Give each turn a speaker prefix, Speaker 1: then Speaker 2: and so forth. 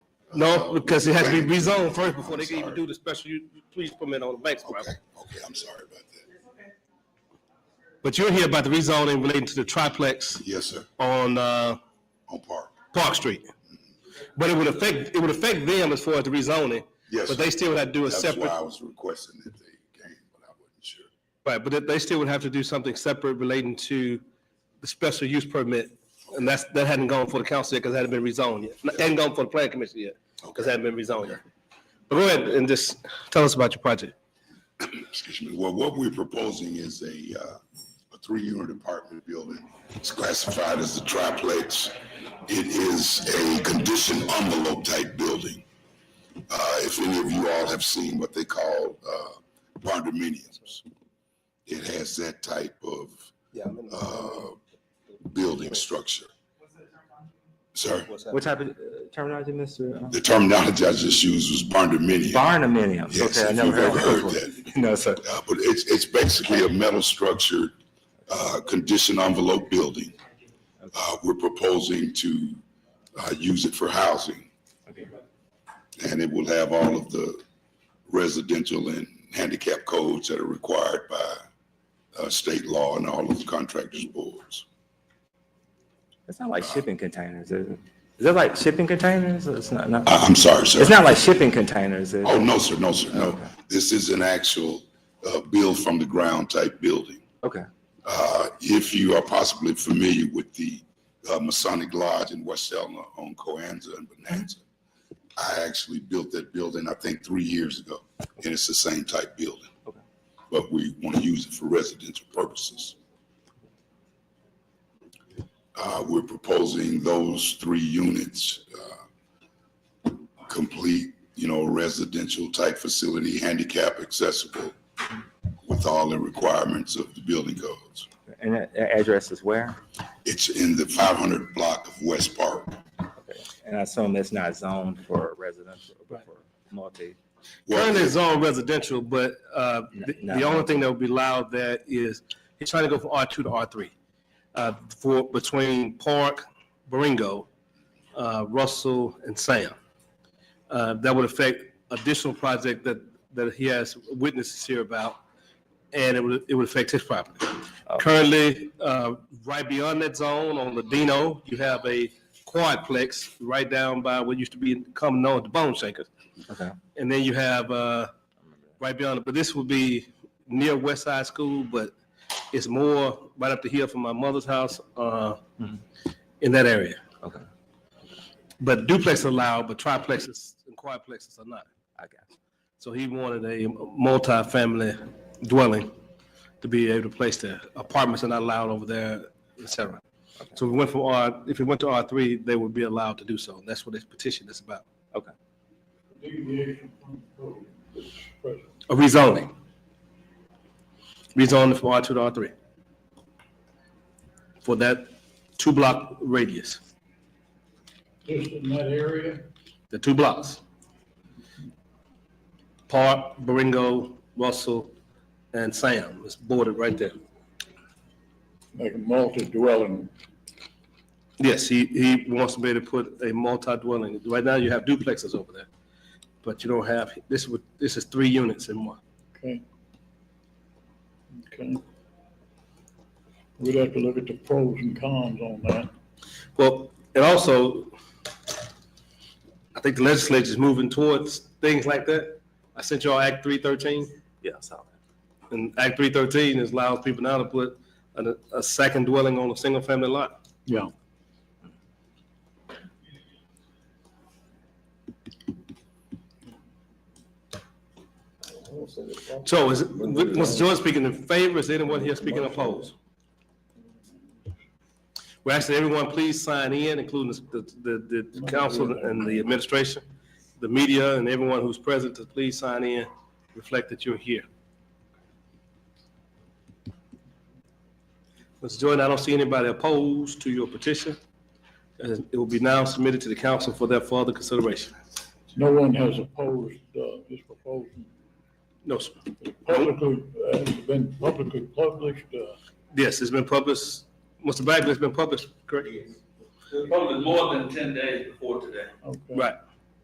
Speaker 1: No, because it has to be rezoned first before they can even do the special u- use permit on the bank's
Speaker 2: Okay,
Speaker 1: property.
Speaker 2: okay, I'm sorry about that.
Speaker 1: But you're here about the rezoning relating to the triplex
Speaker 2: Yes, sir,
Speaker 1: on, uh,
Speaker 2: on Park.
Speaker 1: Park Street. But it would affect, it would affect them as far as the rezoning.
Speaker 2: Yes,
Speaker 1: But they still would have to do a
Speaker 2: That's why I
Speaker 1: separate,
Speaker 2: was requesting that they came, but I wasn't sure.
Speaker 1: right, but they still would have to do something separate relating to the special use permit. And that's, that hadn't gone for the council yet because it hadn't been rezoned yet. Hadn't gone for the planning commission yet because it hadn't been rezoned yet. But go ahead and just tell us about your project.
Speaker 2: Excuse me. Well, what we're proposing is a, uh, a three-unit apartment building. It's classified as a triplex. It is a conditioned envelope type building. Uh, if any of you all have seen what they call, uh, condominiums, it has that type of,
Speaker 1: Yeah.
Speaker 2: uh, building structure. Sir,
Speaker 3: What type of uh, terminology, Mr.?
Speaker 2: the terminology I just used was barndominium.
Speaker 3: Barnuminium.
Speaker 2: Yes,
Speaker 3: Okay, I
Speaker 2: if
Speaker 3: never
Speaker 2: you've
Speaker 3: heard
Speaker 2: ever
Speaker 3: that
Speaker 2: heard
Speaker 3: before.
Speaker 2: that.
Speaker 3: No, sir.
Speaker 2: Uh, but it's, it's basically a metal structured, uh, conditioned envelope building. Uh, we're proposing to, uh, use it for housing. And it will have all of the residential and handicap codes that are required by, uh, state law and all of the contractors' boards.
Speaker 3: It's not like shipping containers, is it? Is it like shipping containers? It's not, not,
Speaker 2: I, Uh, I'm sorry, sir.
Speaker 3: it's not like shipping containers, is
Speaker 2: Oh,
Speaker 3: it?
Speaker 2: no, sir, no, sir, no. This is an actual, uh, build from the ground type building.
Speaker 3: Okay,
Speaker 2: Uh, if you are possibly familiar with the uh, Masonic Lodge in West Selma on Coanza and Bonanza, I actually built that building, I think, three years ago, and it's the same type building.
Speaker 3: Okay.
Speaker 2: But we want to use it for residential purposes. Uh, We're proposing those three units, uh, complete, you know, residential type facility, handicap accessible, with all the requirements of the building codes.
Speaker 3: and that, that address is where?
Speaker 2: It's in the five hundred block of West Park.
Speaker 3: And I assume that's not zoned for residential, but for multi.
Speaker 1: Currently,
Speaker 2: Well,
Speaker 1: it's all residential, but uh, the
Speaker 3: No,
Speaker 1: the
Speaker 3: no.
Speaker 1: only thing that would be allowed that is, he's trying to go from R2 to R3, uh, for, between Park, Baringo, uh, Russell, and Sam. Uh, That would affect additional project that, that he has witnesses here about, and it would, it would affect his property. Currently, uh, right beyond that zone on Ladino, you have a quadplex right down by what used to be common known as the Bone Shakers.
Speaker 3: Okay,
Speaker 1: And then you have, uh, right beyond it, but this would be near West Side School, but it's more right up the hill from my mother's house, uh, in that area.
Speaker 3: okay,
Speaker 1: But duplex are allowed, but triplexes and quadplexes are not.
Speaker 3: I got you.
Speaker 1: So he wanted a multi-family dwelling to be able to place there. Apartments are not allowed over there, et cetera. So we went from R, if we went to R three, they would be allowed to do so. That's what this petition is about.
Speaker 3: Okay,
Speaker 1: A rezoning. Rezoning from R two to R three. For that two block radius,
Speaker 4: just in that area,
Speaker 1: the two blocks. Park, Baringo, Russell, and Sam is bordered right there.
Speaker 4: like a multi-dwelling.
Speaker 1: Yes, he, he wants to be able to put a multi-dwelling. Right now, you have duplexes over there, but you don't have, this would, this is three units in one.
Speaker 4: Okay. Okay. We'd have to look at the pros and cons on that.
Speaker 1: Well, and also, I think the legislature's moving towards things like that. I sent y'all Act three thirteen,
Speaker 3: yeah, I saw that.
Speaker 1: and Act three thirteen is allows people now to put a, a second dwelling on a single-family lot.
Speaker 4: Yeah.
Speaker 1: So is, it- was George speaking in favor? Is anyone here speaking opposed? Well, actually, everyone, please sign in, including the, the, the council and the administration, the media, and everyone who's present, to please sign in, reflect that you're here. Mr. Jordan, I don't see anybody opposed to your petition. Uh, It will be now submitted to the council for their further consideration.
Speaker 4: No one has opposed, uh, this proposal.
Speaker 1: No, sir.
Speaker 4: Publicly, uh, it's been publicly published, uh,
Speaker 1: Yes, it's been published, Mr. Bagley, it's been published, correct?
Speaker 5: Probably more than ten days before today.
Speaker 4: okay.
Speaker 1: Right.